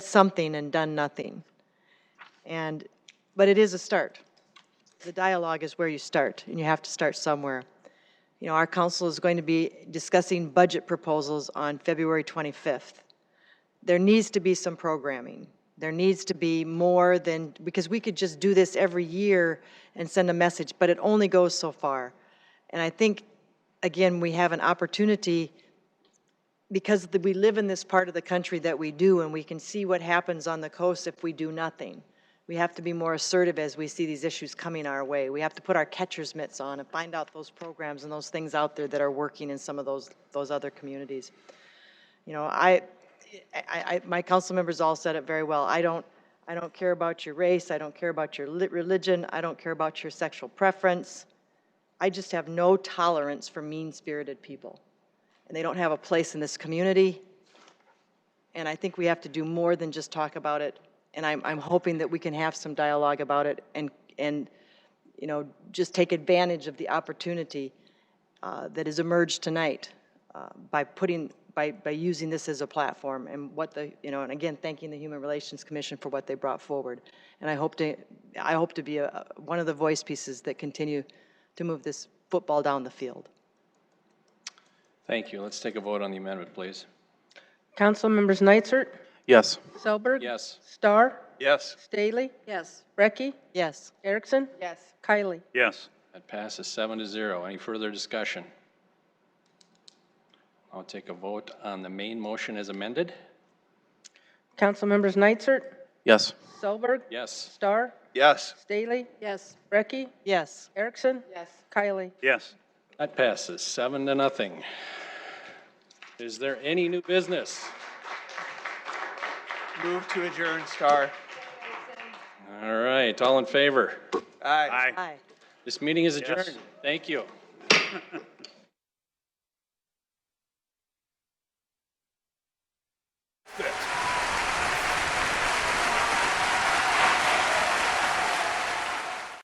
something and done nothing. And, but it is a start. The dialogue is where you start, and you have to start somewhere. You know, our council is going to be discussing budget proposals on February 25th. There needs to be some programming. There needs to be more than, because we could just do this every year and send a message, but it only goes so far. And I think, again, we have an opportunity because the- we live in this part of the country that we do, and we can see what happens on the coast if we do nothing. We have to be more assertive as we see these issues coming our way. We have to put our catcher's mitts on and find out those programs and those things out there that are working in some of those, those other communities. You know, I, I, I, my council members all said it very well. I don't, I don't care about your race, I don't care about your li- religion, I don't care about your sexual preference. I just have no tolerance for mean-spirited people and they don't have a place in this community. And I think we have to do more than just talk about it. And I'm, I'm hoping that we can have some dialogue about it and, and, you know, just take advantage of the opportunity uh, that has emerged tonight uh, by putting, by, by using this as a platform and what the, you know, and again, thanking the Human Relations Commission for what they brought forward. And I hope to, I hope to be a, one of the voice pieces that continue to move this football down the field. Thank you. Let's take a vote on the amendment, please. Councilmembers Nitzert, Yes. Selberg. Yes. Starr, Yes. Staley, Yes. Brecky, Yes. Erickson, Yes. Kylie. Yes. That passes seven to zero. Any further discussion? I'll take a vote on the main motion as amended. Councilmembers Nitzert, Yes. Selberg, Yes. Starr, Yes. Staley, Yes. Brecky, Yes. Erickson, Yes. Kylie. Yes. That passes seven to nothing. Is there any new business? Move to adjourn, Star. All right, all in favor? Aye. Aye. This meeting is Yes. adjourned. Thank you.